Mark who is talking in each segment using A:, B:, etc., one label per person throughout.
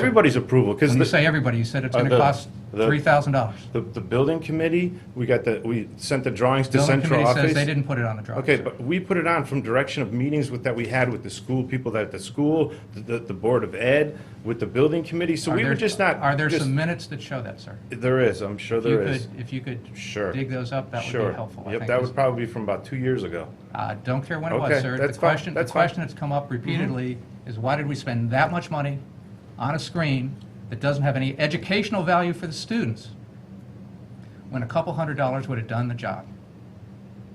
A: Everybody's approval, because
B: When you say
A: the,
B: everybody, you said it's
A: Uh,
B: going to
A: the-
B: cost
A: the-
B: $3,000.
A: the the building committee, we got the, we sent the drawings to
B: Building
A: central
B: committee says they
A: office.
B: didn't put it on the drawings.
A: Okay, but we put it on from direction of meetings with, that we had with the school, people that at the school, the- the, the Board of Ed, with the building committee, so
B: Are
A: we were
B: there-
A: just not.
B: Are there
A: just-
B: some minutes that show that, sir?
A: There is, I'm sure
B: If you
A: there is.
B: could- If you could
A: Sure.
B: dig those up, that would
A: Sure.
B: be helpful. I
A: Yep,
B: think
A: that
B: is-
A: would probably be from about two years ago.
B: Uh, Don't care when it
A: Okay,
B: was, sir.
A: that's
B: The
A: fine,
B: question, the
A: that's fine. Mm-hmm.
B: question that's come up repeatedly is why did we spend that much money on a screen that doesn't have any educational value for the students when a couple hundred dollars would have done the job?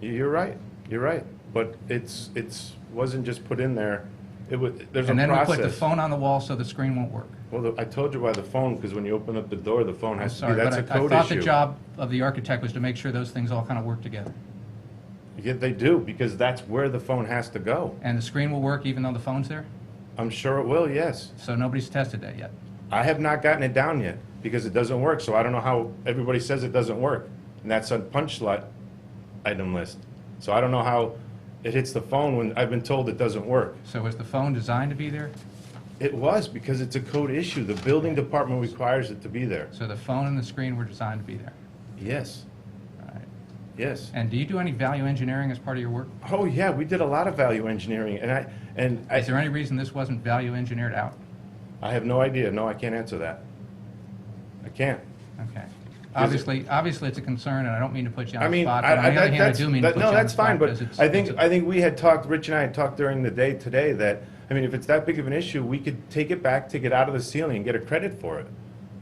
A: You- You're right, you're right. But it's, it's, wasn't just put in there. It was, there's a
B: And then we put the
A: process.
B: phone on the wall so the screen won't work.
A: Well, the- I told you why the phone, because when you open up the door, the phone
B: I'm
A: has to be,
B: sorry,
A: that's a
B: but I- I
A: code
B: thought the
A: issue.
B: job of the architect was to make sure those things all kind of work together.
A: Yeah, they do, because that's where the phone has to go.
B: And the screen will work even though the phone's there?
A: I'm sure it will, yes.
B: So nobody's tested that yet.
A: I have not gotten it down yet, because it doesn't work, so I don't know how, everybody says it doesn't work. And that's on punch slot item list. So I don't know how it hits the phone when I've been told it doesn't work.
B: So was the phone designed to be there?
A: It was, because it's a code issue. The building department requires it to be there.
B: So the phone and the screen were designed to be there.
A: Yes,
B: All right.
A: yes.
B: And do you do any value engineering as part of your work?
A: Oh, yeah, we did a lot of value engineering, and I, and
B: Is there
A: I,
B: any reason this wasn't value engineered out?
A: I have no idea. No, I can't answer that. I can't.
B: Okay. Obviously, obviously, it's a concern, and I don't mean to put you
A: I
B: on the
A: mean,
B: spot,
A: I,
B: but on
A: I,
B: the other
A: that-
B: hand, I
A: that's,
B: do mean to
A: that-
B: put you on
A: no,
B: the
A: that's
B: spot.
A: fine, but
B: because it's-
A: I think,
B: it's a-
A: I think we had talked, Rich and I had talked during the day today that, I mean, if it's that big of an issue, we could take it back, take it out of the ceiling and get a credit for it.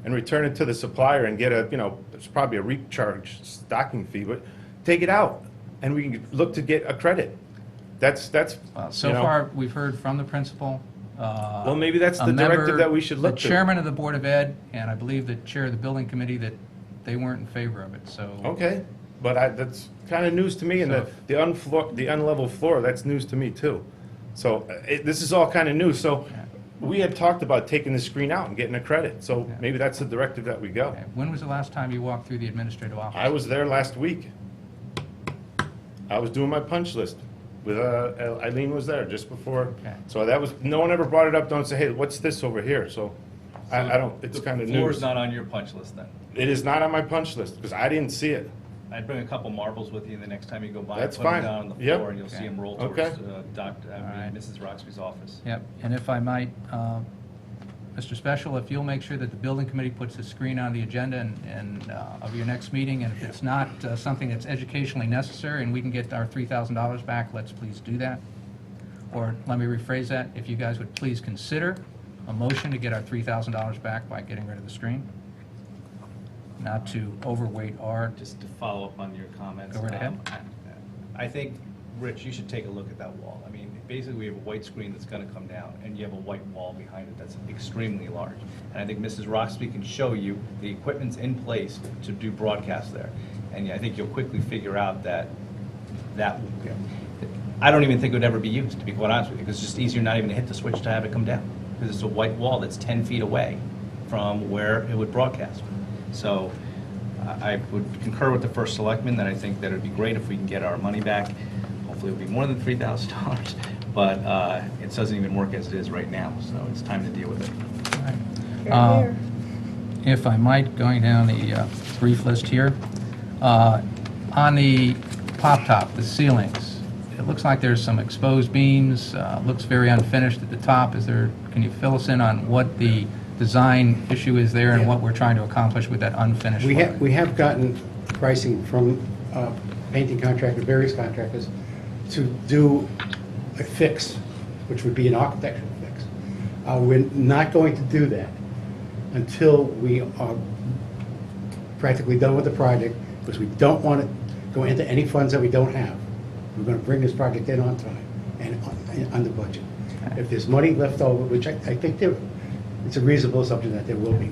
A: And return it to the supplier and get a, you know, it's probably a recharge stocking fee, but take it out and we can look to get a credit. That's, that's,
B: Well,
A: you
B: Uh, So
A: know.
B: far, we've heard from the principal. uh,
A: Well, maybe that's the directive that we should look
B: The
A: to.
B: chairman of the Board of Ed, and I believe the chair of the building committee, that they weren't in favor of it, so.
A: Okay, but I, that's kind of news to me, and
B: So
A: the, the unfloor, the unlevel floor, that's news to me too. So, uh, it, this is all kind of new, so
B: Yeah.
A: we had talked about taking the screen out and getting a credit, so
B: Yeah.
A: maybe that's the directive that we go.
B: Okay. When was the last time you walked through the administrative office?
A: I was there last week. I was doing my punch list with, uh, Eileen was there just before.
B: Okay.
A: So that was, no one ever brought it up, don't say, hey, what's this over here, so, I, I don't, it's kind of
C: The floor is
A: news.
C: not on your punch list then.
A: It is not on my punch list, because I didn't see it.
C: I'd bring a couple marbles with you the next time you go by.
A: That's
C: put 'em
A: fine.
C: down on the
A: Yep.
C: floor and you'll see
B: Okay.
C: them roll
A: Okay.
C: towards uh, Dr., I
B: Alright.
C: mean, Mrs. Roxby's office.
B: Yep, and if I might, um, Mr. Special, if you'll make sure that the building committee puts the screen on the agenda and- and, uh, of your next meeting, and if it's not uh, something that's educationally necessary and we can get our $3,000 back, let's please do that. Or, let me rephrase that, if you guys would please consider a motion to get our $3,000 back by getting rid of the screen, not to overweight our,
C: Just to follow up on your comments.
B: Go right ahead.
C: um, I- I think, Rich, you should take a look at that wall. I mean, basically, we have a white screen that's gonna come down, and you have a white wall behind it that's extremely large. And I think Mrs. Roxby can show you the equipment's in place to do broadcast there. And I think you'll quickly figure out that that, I don't even think it would ever be used, to be quite honest with you, because it's just easier not even to hit the switch to have it come down, because it's a white wall that's 10 feet away from where it would broadcast. So I I would concur with the first selectman, that I think that it'd be great if we can get our money back. Hopefully it'll be more than $3,000, but uh, it doesn't even work as it is right now, so it's time to deal with it.
B: Uh, If I might, going down the uh, brief list here, uh, on the pop-top, the ceilings, it looks like there's some exposed beams, uh, looks very unfinished at the top. Is there, can you fill us in on what the design issue is there and what we're trying to accomplish with that unfinished
D: We have,
B: look?
D: we have gotten pricing from uh, painting contractors, various contractors, to do a fix, which would be an architectural fix. Uh, We're not going to do that until we are practically done with the project, because we don't want to go into any funds that we don't have. We're going to bring this project in on time and on- and under budget. If there's money left over, which I I think there, it's a reasonable assumption that there will be,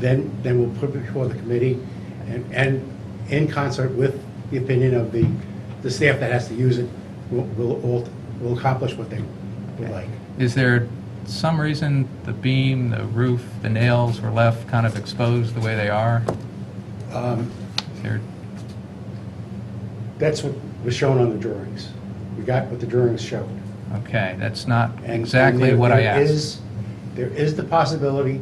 D: then, then we'll put it before the committee and, and in concert with the opinion of the, the staff that has to use it, we'll, we'll, all- we'll accomplish what they would like.
B: Is there some reason the beam, the roof, the nails were left kind of exposed the way they are?
D: Um,
B: Is there-
D: That's what was shown on the drawings. We got what the drawings showed.
B: Okay, that's not
D: And-
B: exactly
D: and
B: what I
D: there-
B: asked.
D: There is There is the possibility